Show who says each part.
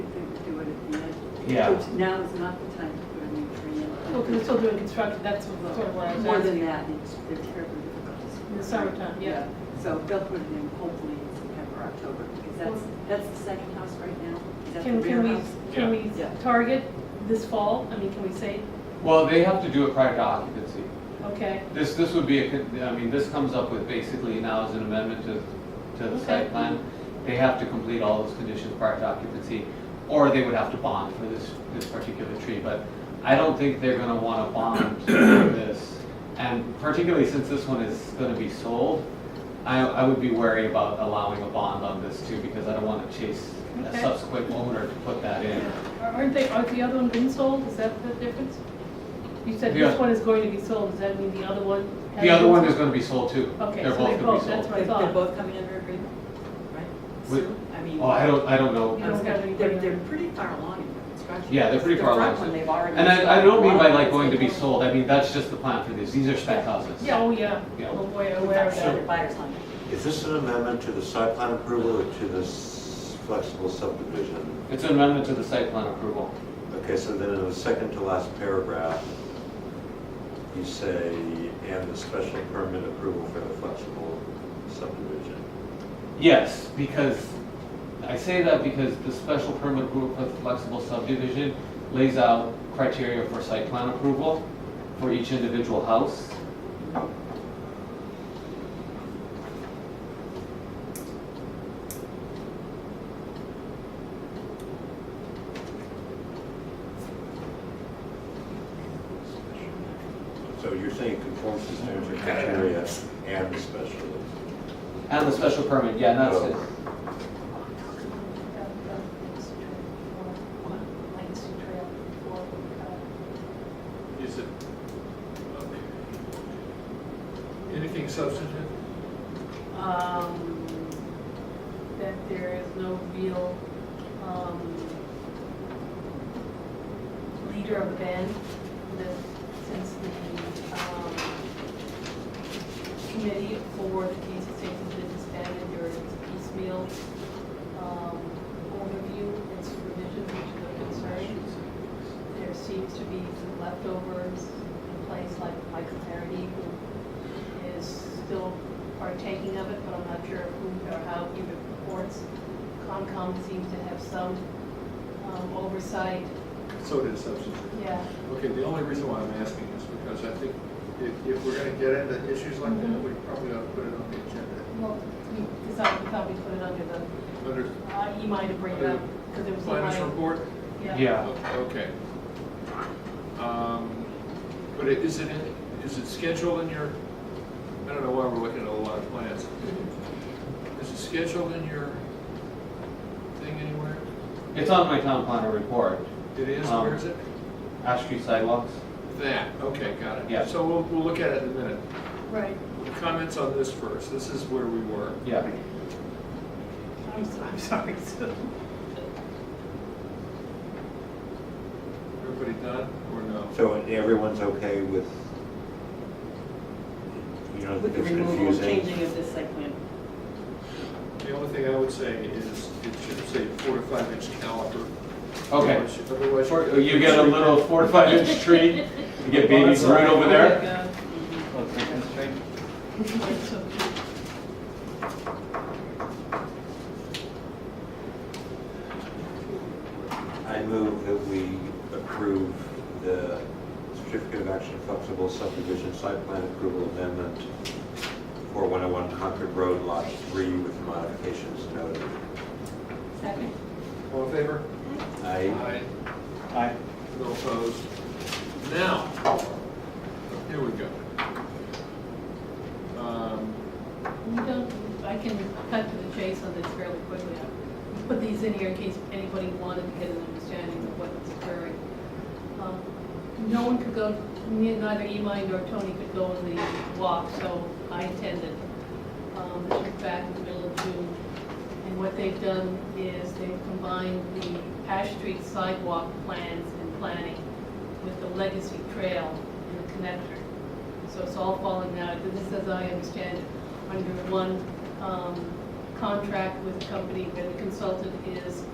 Speaker 1: Yeah.
Speaker 2: Which Now is not the time to put a new tree
Speaker 3: Well, because
Speaker 2: in.
Speaker 3: they're still doing construction, that's what- Oh, sort of what I was
Speaker 2: More
Speaker 3: asking.
Speaker 2: than that, it's, they're terribly difficult.
Speaker 3: In the summertime, yeah.
Speaker 2: So they'll put it in hopefully in September, October, because that's, that's the second house right now. Is that the
Speaker 3: Can,
Speaker 2: rear
Speaker 3: can
Speaker 2: house?
Speaker 3: we, can we
Speaker 2: Yeah.
Speaker 3: target this fall? I mean, can we say,
Speaker 4: Well, they have to do it prior to occupancy.
Speaker 3: okay,
Speaker 4: This, this would be, a con- I mean, this comes up with basically now as an amendment to, to the
Speaker 3: Okay.
Speaker 4: site plan. They have to complete all those conditions prior to occupancy, or they would have to bond for this, this particular tree. But I don't think they're gonna wanna bond for this. And particularly since this one is gonna be sold, I, I would be wary about allowing a bond on this too, because I don't wanna chase a
Speaker 3: Okay.
Speaker 4: subsequent owner to put that in.
Speaker 3: aren't they, aren't the other one being sold? Is that the difference? You said
Speaker 4: Yeah.
Speaker 3: this one is going to be sold, does that mean the other one? has
Speaker 4: The other
Speaker 3: been
Speaker 4: one is
Speaker 3: sold?
Speaker 4: gonna be sold too.
Speaker 3: Okay,
Speaker 4: They're
Speaker 3: so they
Speaker 4: both gonna be
Speaker 3: both, that's
Speaker 4: sold.
Speaker 3: what I
Speaker 5: They're they're
Speaker 3: thought.
Speaker 5: both coming under agreement, right?
Speaker 4: With-
Speaker 5: Soon? I mean.
Speaker 4: Oh, I don't, I don't know.
Speaker 3: You don't have any
Speaker 5: They're,
Speaker 3: data.
Speaker 5: they're pretty far along in their construction.
Speaker 4: Yeah, they're pretty far
Speaker 5: The
Speaker 4: along.
Speaker 5: front one, they've already.
Speaker 4: And I, I don't mean by like
Speaker 5: Wow.
Speaker 4: going to be sold, I mean, that's just the plan for these, these are spec houses.
Speaker 3: Yeah, oh, yeah,
Speaker 4: Yeah.
Speaker 3: oh boy,
Speaker 5: We've
Speaker 3: aware of
Speaker 5: got
Speaker 3: that.
Speaker 5: standard buyers on
Speaker 6: Is this an amendment to the site plan approval or to this flexible subdivision?
Speaker 4: It's an amendment to the site plan approval.
Speaker 6: Okay, so then in the second to last paragraph, you say, and the special permit approval for the flexible subdivision.
Speaker 4: Yes, because, I say that because the special permit group with flexible subdivision lays out criteria for site plan approval for each individual house.
Speaker 6: So you're saying it conforms to standard criteria and the special.
Speaker 4: And the special permit, yeah, and that's it.
Speaker 7: Is it? okay. Anything substantive?
Speaker 3: Um, that there is no real, um, leader of the band, that since the, um, committee for the Kansas State Business Band, and there is piecemeal, um, overview, its revision, which is a concern. There seems to be some leftovers in place, like Michael Faraday, who is still partaking of it, but I'm not sure who or how he reports. Concom seems to have some um, oversight,
Speaker 7: So it is substantive.
Speaker 3: yeah.
Speaker 7: Okay, the only reason why I'm asking is because I think if, if we're gonna get into issues like that, we
Speaker 3: Mm-hmm.
Speaker 7: probably ought to put it on the agenda.
Speaker 3: Well, we decided we thought we put it under the,
Speaker 7: Under
Speaker 3: uh, he might have bring it up, because it was.
Speaker 7: planners
Speaker 3: like-
Speaker 7: report?
Speaker 4: Yeah,
Speaker 7: Okay. Um, But it- is it, in- is it scheduled in your, I don't know why we're looking at a lot of plans. Is it scheduled in your thing anywhere?
Speaker 4: it's on my town planner report,
Speaker 7: It is,
Speaker 4: Um,
Speaker 7: where is it?
Speaker 4: Ash Street sidewalks.
Speaker 7: That, okay, got it.
Speaker 4: Yeah.
Speaker 7: So we'll, we'll look at it in a minute.
Speaker 3: Right,
Speaker 7: Comments on this first, this is where we were.
Speaker 4: Yeah,
Speaker 3: I'm, so- I'm sorry, so.
Speaker 7: Everybody done, or no?
Speaker 6: So everyone's okay with, you know,
Speaker 2: With
Speaker 6: it's
Speaker 2: the removal,
Speaker 6: confusing.
Speaker 2: changing of this site plan.
Speaker 7: The only thing I would say is, it should say four to five inch caliper.
Speaker 4: okay.
Speaker 7: Otherwise- Otherwise.
Speaker 4: Four- You get a little four to five inch tree, you get baby Groot over there.
Speaker 6: I move that we approve the certificate of action flexible subdivision site plan approval amendment for 101 Concord Road, Lot 3, with modifications noted.
Speaker 3: Second.
Speaker 7: All in favor?
Speaker 6: I,
Speaker 4: Aye.
Speaker 7: No opposed. Now, here we go. Um,
Speaker 3: We don't, I can cut to the chase on this fairly quickly. I Put these in here in case anybody wanted to get an understanding of what's occurring. Um, No one could go, ne- neither Imai nor Tony could go on the walk, so I attended. Um, This was back in the middle of June. And what they've done is they've combined the Ash Street sidewalk plans and planning with the Legacy Trail and the connector. So it's all falling now, this is, as I understand, it, under one um, contract with a company where the consultant is